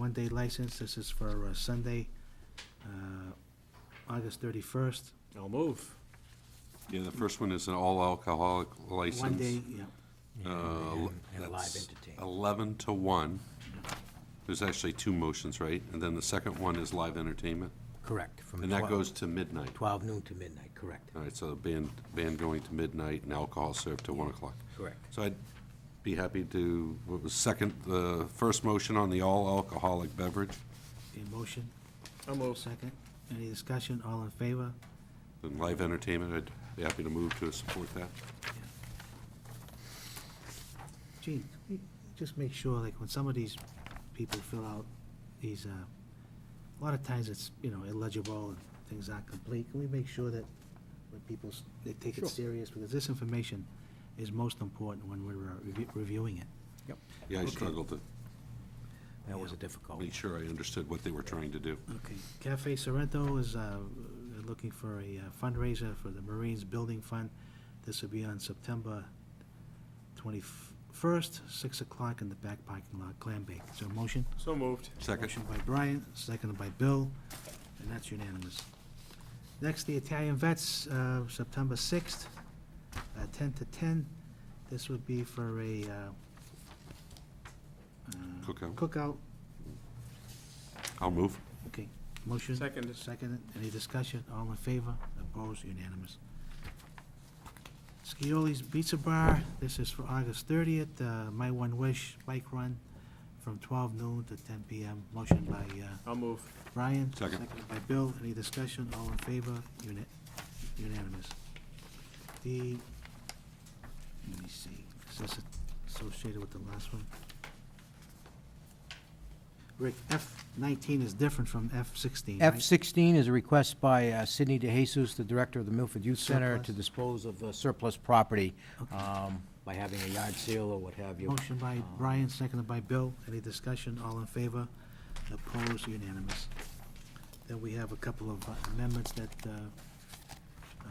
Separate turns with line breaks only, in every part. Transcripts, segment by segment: one-day license. This is for uh, Sunday, uh, August 31st.
I'll move.
Yeah, the first one is an all alcoholic license.
One day, yeah.
Uh,
And- And a live
that's
entertainment.
11 to 1. There's actually two motions, right? And then the second one is live entertainment,
Correct. From
and that
12
goes to midnight.
12 noon to midnight, correct,
All right, so band, band going to midnight and alcohol served to 1 o'clock.
correct.
So I'd be happy to, what was second, the first motion on the all alcoholic beverage?
A motion,
I'll move.
second. Any discussion? All in favor?
And live entertainment, I'd be happy to move to support that.
Gee, can we just make sure, like, when some of these people fill out these, uh, a lot of times it's, you know, illegible and things aren't complete. Can we make sure that when people, s- they take it
Sure.
serious? Because this information is most important when we're uh, review- reviewing it.
Yep.
Yeah, I
Okay.
struggled to
That was a difficult one.
make sure I understood what they were trying to do.
Okay, Cafe Sorrento is uh, they're looking for a uh, fundraiser for the Marines Building Fund. This will be on September 21st, 6 o'clock in the back parking lot, Clam Bake. Is there a motion?
So moved.
Second,
Motion by Brian, seconded by Bill, and that's unanimous. Next, the Italian Vets, uh, September 6th, uh, 10 to 10. This would be for a uh, uh,
Cookout.
Cookout,
I'll move.
okay. Motion?
Second.
Second, any discussion, all in favor, opposed, unanimous. Scioli's Pizza Bar, this is for August thirtieth, uh, My One Wish Bike Run from twelve noon to ten PM, motion by, uh,
I'll move.
Brian.
Second.
Seconded by Bill, any discussion, all in favor, uni- unanimous. The, let me see, is this associated with the last one? Rick, F nineteen is different from F sixteen, right?
F-16 is a request by uh, Sidney DeJesus, the director of the Milford Youth Center,
Surplus.
to dispose of uh, surplus property
Okay.
um, by having a yard sale or what have you.
Motion by
Um,
Brian, seconded by Bill. Any discussion? All in favor? Opposed? Unanimous. Then we have a couple of amendments that uh, uh,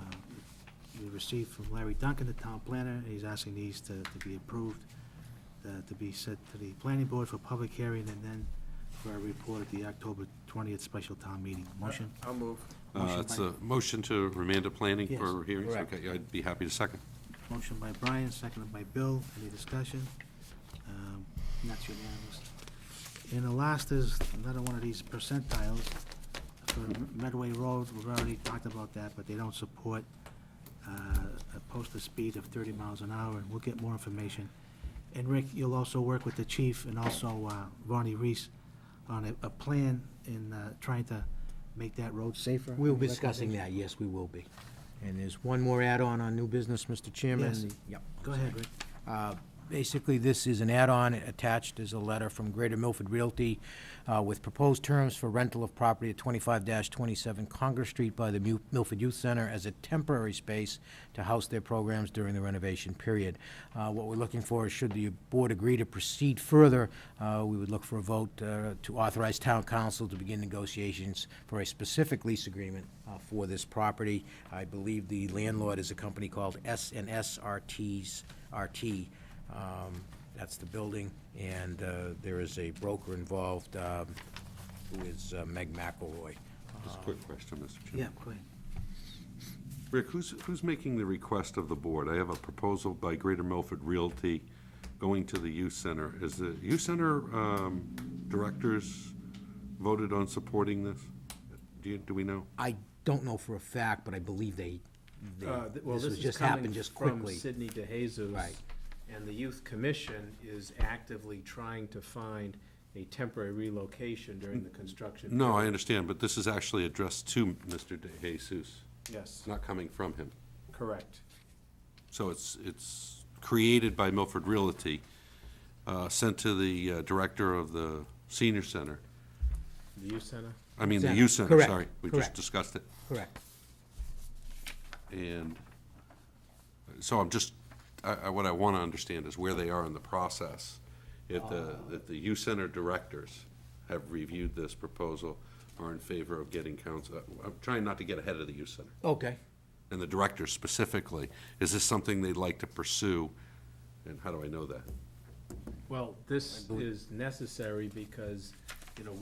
we received from Larry Duncan, the town planner. He's asking these to to be approved, uh, to be sent to the planning board for public hearing and then for a report at the October 20th special town meeting. Motion?
I'll move.
Uh,
Motion
It's
by-
a motion to remand to planning
Yes.
for hearings?
Correct.
Okay, I'd be happy to second.
Motion by Brian, seconded by Bill. Any discussion? Um, and That's unanimous. And the last is another one of these percentiles for Medway Road. We've already talked about that, but they don't support uh, a posted speed of 30 miles an hour, and we'll get more information. And Rick, you'll also work with the chief and also uh, Ronnie Reese on a- a plan in uh, trying to make that road safer.
We'll
Any
be discussing
recommendations?
that, yes, we will be. And there's one more add-on on new business, Mr. Chairman.
Yes.
The- Yep.
Go ahead, Rick.
Uh, Basically, this is an add-on attached as a letter from Greater Milford Realty uh, with proposed terms for rental of property at 25-27 Congress Street by the Mu- Milford Youth Center as a temporary space to house their programs during the renovation period. Uh, What we're looking for is should the board agree to proceed further, uh, we would look for a vote uh, to authorize town council to begin negotiations for a specific lease agreement uh, for this property. I believe the landlord is a company called S and S RTs, RT. Um, That's the building, and uh, there is a broker involved, um, who is uh, Meg McElroy.
Just a
Uh,
quick question, Mr.
Yeah,
Chairman.
go ahead.
Rick, who's, who's making the request of the board? I have a proposal by Greater Milford Realty going to the youth center. Is the youth center um, directors voted on supporting this? Do you, do we know?
I don't know for a fact, but I believe they, they-
Uh, th- Well,
this
this
was
is
just
coming
happened just
from
quickly.
Sidney DeJesus.
Right.
And the Youth Commission is actively trying to find a temporary relocation during the construction.
No, I understand, but this is actually addressed to Mr. DeJesus.
Yes,
It's not coming from him.
correct.
So it's, it's created by Milford Realty, uh, sent to the uh, director of the senior center.
The Youth Center?
I mean, the
Center,
youth center,
correct,
sorry. We just
correct.
discussed it.
Correct.
And so I'm just, I, I, what I want to understand is where they are in the process. If the, if the youth center directors have reviewed this proposal, are in favor of getting council, I'm trying not to get ahead of the youth center.
Okay.
And the directors specifically, is this something they'd like to pursue? And how do I know that?
Well, this is necessary because